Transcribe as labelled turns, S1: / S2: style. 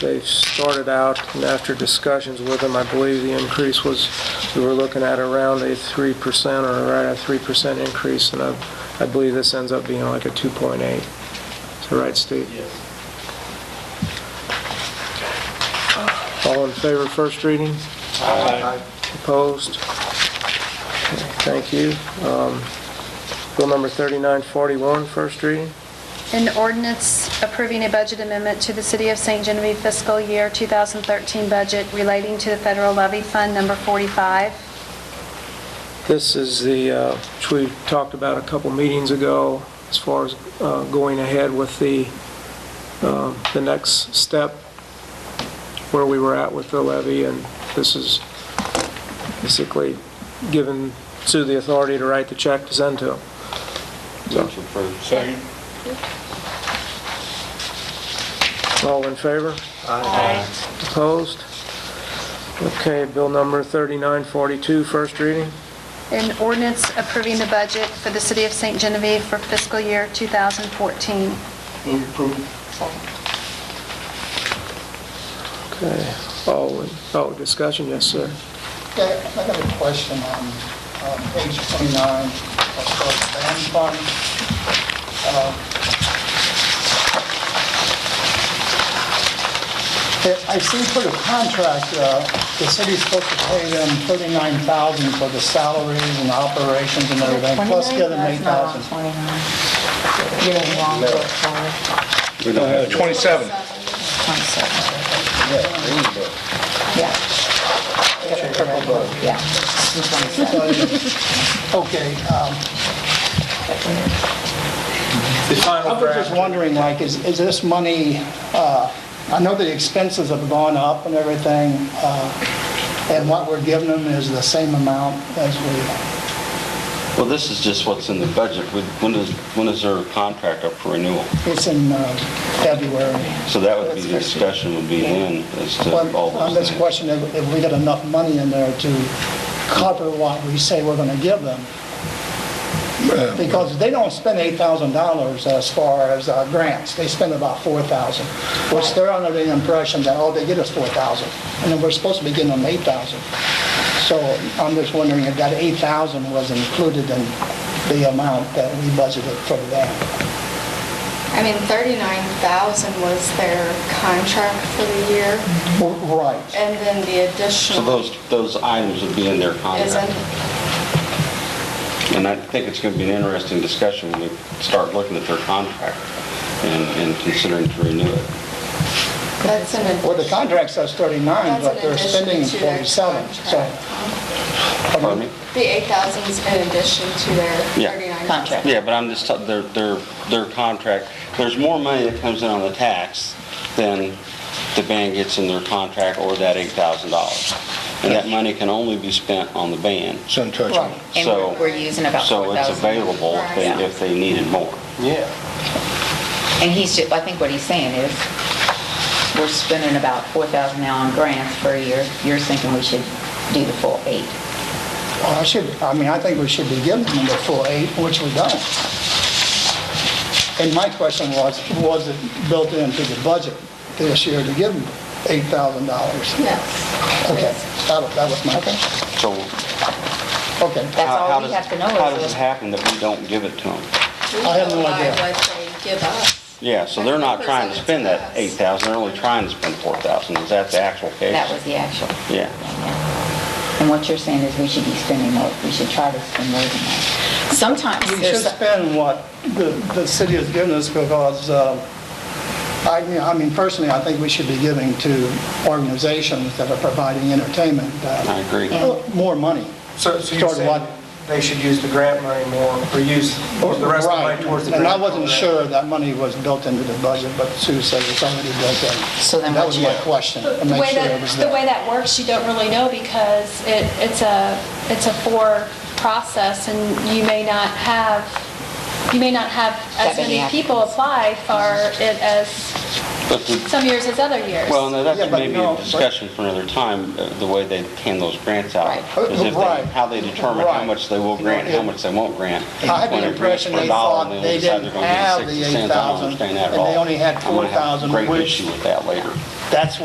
S1: They started out, and after discussions with them, I believe the increase was, we were looking at around a 3% or right at 3% increase, and I I believe this ends up being like a 2.8. Is that right, Steve?
S2: Yes.
S1: All in favor, first reading? Opposed? Okay, Thank you. Um, Bill number 3941, first reading.
S3: An ordinance approving a budget amendment to the City of St. Genevieve fiscal year 2013 budget relating to the federal levy fund number 45.
S1: This is the, uh, which we talked about a couple meetings ago, as far as uh, going ahead with the, uh, the next step, where we were at with the levy, and this is basically given Sue the authority to write the check to send to them.
S4: Motion approved.
S2: Second.
S1: All in favor? Opposed? Okay, bill number 3942, first reading.
S3: An ordinance approving the budget for the City of St. Genevieve for fiscal year 2014.
S2: Move approval.
S1: Okay, all, in- oh, discussion, yes, sir.
S5: Yeah, I got a question on um, page 29, of the band fund. Uh, it- I see for the contract, uh, the city's supposed to pay them 39000 for the salaries and operations and everything, plus give them 8000
S6: Twenty-nine. You're in the wrong book, sorry.
S4: We don't have,
S2: Twenty-seven.
S6: Twenty-seven. Yeah. Yeah. the Twenty-seven.
S5: Okay. um, I was just wondering, like, is, is this money, uh, I know the expenses have gone up and everything, uh, and what we're giving them is the same amount as we,
S4: well, this is just what's in the budget. We- When is, when is their contract up for renewal?
S5: it's in uh, February.
S4: So that would be, the discussion would be in as to
S5: Well,
S4: all
S5: On
S4: those
S5: this
S4: things.
S5: question, if if we got enough money in there to cover what we say we're going to give them. Because they don't spend $8,000 as far as uh, grants, they spend about $4,000. Which they're under the impression that all they get is $4,000, and then we're supposed to be getting them $8,000. So I'm just wondering if that $8,000 was included in the amount that we budgeted for that.
S7: I mean, 39,000 was their contract for the year,
S5: Right.
S7: and then the
S4: So
S7: additional
S4: those, those items would be in their
S7: is in,
S4: contract. And I think it's going to be an interesting discussion when we start looking at their contract and, and considering to renew it.
S7: that's an
S5: Well, the contract says 39,
S7: That's
S5: but
S7: an
S5: they're
S7: addition
S5: spending
S7: to their
S5: 47, so...
S7: contract.
S4: Pardon me?
S7: The 8,000 is in addition to their
S4: Yeah.
S7: 39,000.
S4: Yeah, but I'm just, t- their, their, their contract, there's more money that comes in on the tax than the band gets in their contract or that $8,000. And that money can only be spent on the band.
S8: Shouldn't touch
S5: Right.
S8: them.
S6: And
S4: So-
S6: we're- we're using about
S4: So it's
S6: 4,000.
S4: available if
S6: Yeah.
S4: they, if they needed more.
S6: And he's, ju- I think what he's saying is, we're spending about 4,000 now on grants per year. You're thinking we should do the full eight.
S5: Well, I should, I mean, I think we should be giving them the full eight, which we don't. And my question was, was it built into the budget this year to give them $8,000?
S7: Yes.
S5: Okay, that was, that was my question.
S4: So
S5: Okay,
S6: That's
S4: how how
S6: all we
S4: does,
S6: have to know
S4: how
S6: is
S4: does it
S6: that
S4: happen that we don't give it to them?
S7: We
S5: I have no
S7: go by
S5: idea.
S7: What they give us.
S4: Yeah, so they're not trying to spend that 8,000, they're only trying to spend 4,000. Is that the actual case?
S6: that was the actual.
S4: Yeah.
S6: And what you're saying is we should be spending more, we should try to spend more than that. Sometimes
S5: we should
S6: there's,
S5: spend what the, the city has given us because, uh, I mean, I mean, personally, I think we should be giving to organizations that are providing entertainment
S4: I
S5: uh,
S4: agree.
S5: more money.
S9: So so you're
S5: Toward
S9: saying
S5: what?
S9: they should use the grant money more, or use the rest of the money towards the grant?
S5: Right. And I wasn't
S9: program?
S5: sure that money was built into the budget, but Sue says it's already built in.
S6: So then
S5: That
S6: what
S5: was
S6: you-
S5: my question, to make sure it was
S10: The way
S5: there.
S10: that works, you don't really know because it, it's a, it's a four process and you may not have, you may not have
S6: That
S10: as
S6: many
S10: many people apply for it as
S4: But the-
S10: some years as other years.
S4: Well, no, that's
S5: Yeah, but
S4: maybe
S5: no,
S4: a
S5: but-
S4: discussion for another time, uh, the way they hand those grants out.
S5: Right.
S4: Is if
S5: Right.
S4: they, how they determine how
S5: Right.
S4: much they will grant, and how
S5: Yeah.
S4: much they won't grant.
S5: I had
S4: When
S5: the
S4: they're grants
S5: impression
S4: for a
S5: they
S4: dollar,
S5: thought
S4: then
S5: they
S4: decide
S5: didn't
S4: they're gonna give
S5: have the
S4: 60 cents. I don't
S5: 8,000,
S4: understand that at
S5: and they
S4: all.
S5: only had
S4: I'm gonna have a
S5: 4,000,
S4: Great
S5: which-
S4: issue with that later.
S5: That's